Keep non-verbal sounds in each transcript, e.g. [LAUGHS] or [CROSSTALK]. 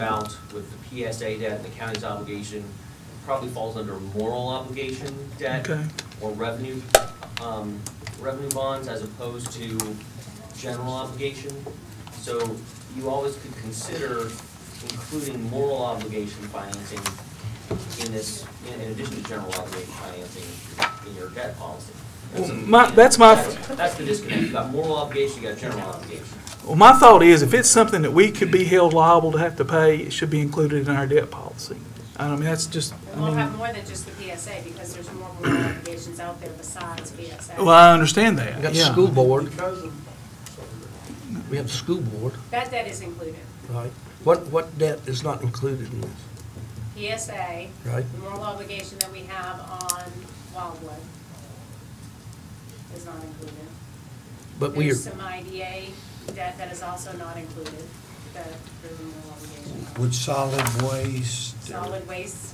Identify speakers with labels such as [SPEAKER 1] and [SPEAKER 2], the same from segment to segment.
[SPEAKER 1] amount with the PSA debt and the county's obligation probably falls under moral obligation debt
[SPEAKER 2] Okay,
[SPEAKER 1] or revenue, um, revenue bonds as opposed to general obligation. So you always could consider including moral obligation financing in this, in in addition to general obligation financing in your debt policy.
[SPEAKER 2] Well, my- that's my-
[SPEAKER 1] That's- That's the disconnect. You got moral obligation, you got general obligation.
[SPEAKER 2] well, my thought is, if it's something that we could be held liable to have to pay, it should be included in our debt policy. I mean, that's just, I
[SPEAKER 3] We'll have
[SPEAKER 2] mean,
[SPEAKER 3] more than just the PSA, because there's more moral obligations out there besides
[SPEAKER 2] well,
[SPEAKER 3] PSA.
[SPEAKER 2] I understand that,
[SPEAKER 4] We got the
[SPEAKER 2] yeah.
[SPEAKER 4] school board. We have the school board,
[SPEAKER 3] That debt is included.
[SPEAKER 4] right? What, what debt is not included in this,
[SPEAKER 3] PSA,
[SPEAKER 4] right?
[SPEAKER 3] the moral obligation that we have on Wildwood is not included.
[SPEAKER 4] But we are,
[SPEAKER 3] There's some IDA debt that is also not included, that there's a moral obligation.
[SPEAKER 5] Would solid waste? uh,
[SPEAKER 3] Solid waste,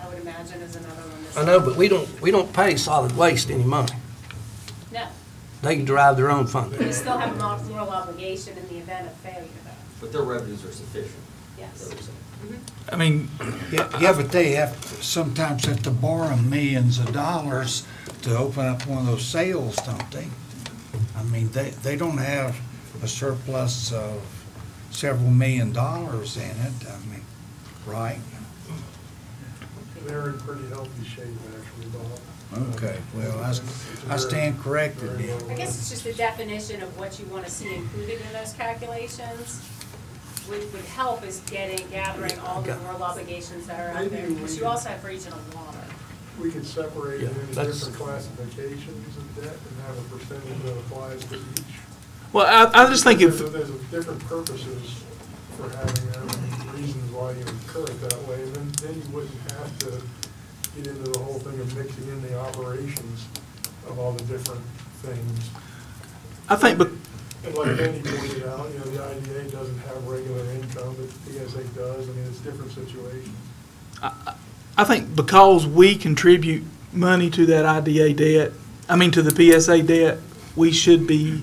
[SPEAKER 3] I would imagine is another one that's.
[SPEAKER 4] I know, but we don't, we don't pay solid waste any money.
[SPEAKER 3] No,
[SPEAKER 4] They can derive their own
[SPEAKER 3] we
[SPEAKER 4] funding.
[SPEAKER 3] still have a mor- moral obligation in the event of failure, though,
[SPEAKER 1] But their revenues are sufficient, is
[SPEAKER 3] yes.
[SPEAKER 1] what we're saying.
[SPEAKER 2] I mean,
[SPEAKER 5] Yeah, yeah, but they have, sometimes have to borrow millions of dollars to open up one of those sales, don't they? I mean, they, they don't have a surplus of several million dollars in it, I mean, right?
[SPEAKER 6] They're in pretty healthy shape, actually, Bob.
[SPEAKER 5] Okay, well, I, s- I stand corrected then.
[SPEAKER 3] I guess it's just the definition of what you want to see included in those calculations. Would, would help is getting, gathering all the moral obligations that are out there, because you also have regional water.
[SPEAKER 6] We could separate it
[SPEAKER 4] Yeah,
[SPEAKER 6] into
[SPEAKER 4] that's-
[SPEAKER 6] different classifications of debt and have a percentage that applies to each.
[SPEAKER 2] well, I, I just think if,
[SPEAKER 6] There's there's different purposes for having that, and reasons why you incur it that way, and then, then you wouldn't have to get into the whole thing of mixing in the operations of all the different things.
[SPEAKER 2] I think, but,
[SPEAKER 6] And like Andy pointed out, you know, the IDA doesn't have regular income, but PSA does, I mean, it's different situations.
[SPEAKER 2] I think because we contribute money to that IDA debt, I mean, to the PSA debt, we should be,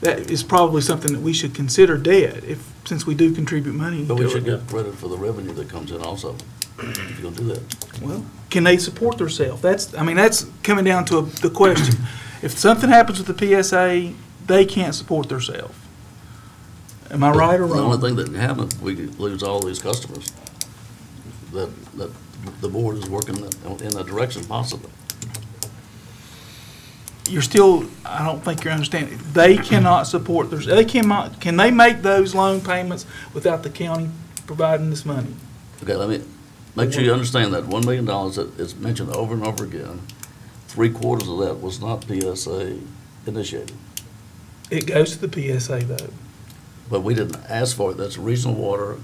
[SPEAKER 2] that is probably something that we should consider debt, if, since we do contribute money
[SPEAKER 7] But we
[SPEAKER 2] to
[SPEAKER 7] should
[SPEAKER 2] it.
[SPEAKER 7] get credit for the revenue that comes in also, if you're gonna do that.
[SPEAKER 2] Well, can they support themselves? That's, I mean, that's coming down to the question. If something happens with the PSA, they can't support themselves. Am I right or
[SPEAKER 7] The only
[SPEAKER 2] wrong?
[SPEAKER 7] thing that can happen, we could lose all these customers. That, that, the board is working that- in that direction possibly.
[SPEAKER 2] You're still, I don't think you're understanding. They cannot support theirs, they cannot, can they make those loan payments without the county providing this money?
[SPEAKER 7] Okay, let me, make sure you understand that one million dollars that is mentioned over and over again, three quarters of that was not PSA initiated.
[SPEAKER 2] It goes to the PSA though.
[SPEAKER 7] But we didn't ask for it, that's regional water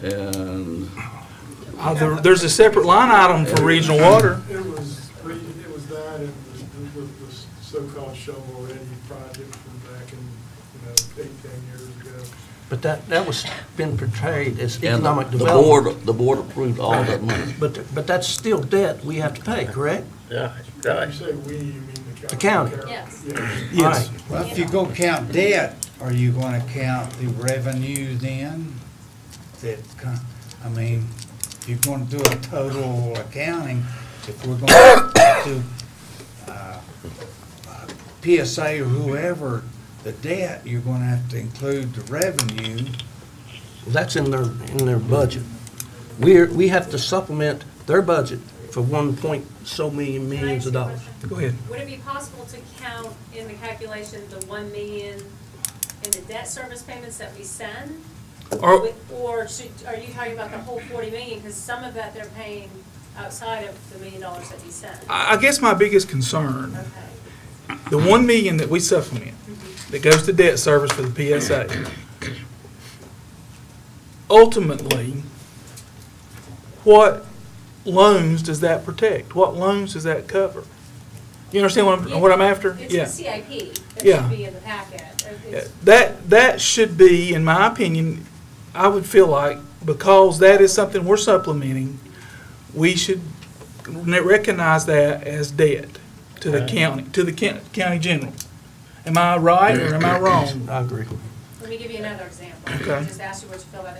[SPEAKER 7] and,
[SPEAKER 2] Uh, there- There's a separate line item for regional water.
[SPEAKER 6] It was, re- it was that and the, the, the so-called shovel ready project from back in, you know, eight, ten years ago.
[SPEAKER 4] But that, that was been portrayed as
[SPEAKER 7] and
[SPEAKER 4] economic
[SPEAKER 7] the
[SPEAKER 4] development.
[SPEAKER 7] board, the board approved all that money.
[SPEAKER 4] But, but that's still debt we have to pay, correct?
[SPEAKER 7] Yeah,
[SPEAKER 6] When you say we, you mean the
[SPEAKER 4] The
[SPEAKER 6] county?
[SPEAKER 4] county.
[SPEAKER 3] Yes.
[SPEAKER 6] Yeah.
[SPEAKER 2] Yes.
[SPEAKER 4] All right.
[SPEAKER 5] Well, if you go count debt, are you gonna count the revenue then? That, co- I mean, if you're gonna do a total accounting, if we're gonna do, uh, uh, PSA or whoever, the debt, you're gonna have to include the revenue.
[SPEAKER 4] That's in their, in their budget. We're, we have to supplement their budget for one point so million
[SPEAKER 3] Can I
[SPEAKER 4] millions
[SPEAKER 3] ask
[SPEAKER 4] of
[SPEAKER 3] a
[SPEAKER 4] dollars.
[SPEAKER 3] question?
[SPEAKER 2] Go ahead.
[SPEAKER 3] Would it be possible to count in the calculation the one million in the debt service payments that we send?
[SPEAKER 2] Or-
[SPEAKER 3] With- Or should, are you talking about the whole forty million, because some of that they're paying outside of the million dollars that we send?
[SPEAKER 4] Uh,
[SPEAKER 2] I I guess my biggest concern
[SPEAKER 3] Okay,
[SPEAKER 2] the one million that we supplement,
[SPEAKER 3] [LAUGHS]
[SPEAKER 2] that goes to debt service for the PSA, ultimately, what loans does that protect? What loans does that cover? You understand what I'm, what I'm after?
[SPEAKER 3] it's
[SPEAKER 2] Yeah.
[SPEAKER 3] the CIP that
[SPEAKER 2] Yeah.
[SPEAKER 3] should be in the packet,
[SPEAKER 2] Yeah,
[SPEAKER 3] It's-
[SPEAKER 2] That, that should be, in my opinion, I would feel like, because that is something we're supplementing, we should n- recognize that as debt to the county, to the coun- county general. Am I right or am I wrong?
[SPEAKER 4] I agree.
[SPEAKER 3] Let me give you another example.
[SPEAKER 2] Okay.
[SPEAKER 3] Just ask you what you feel about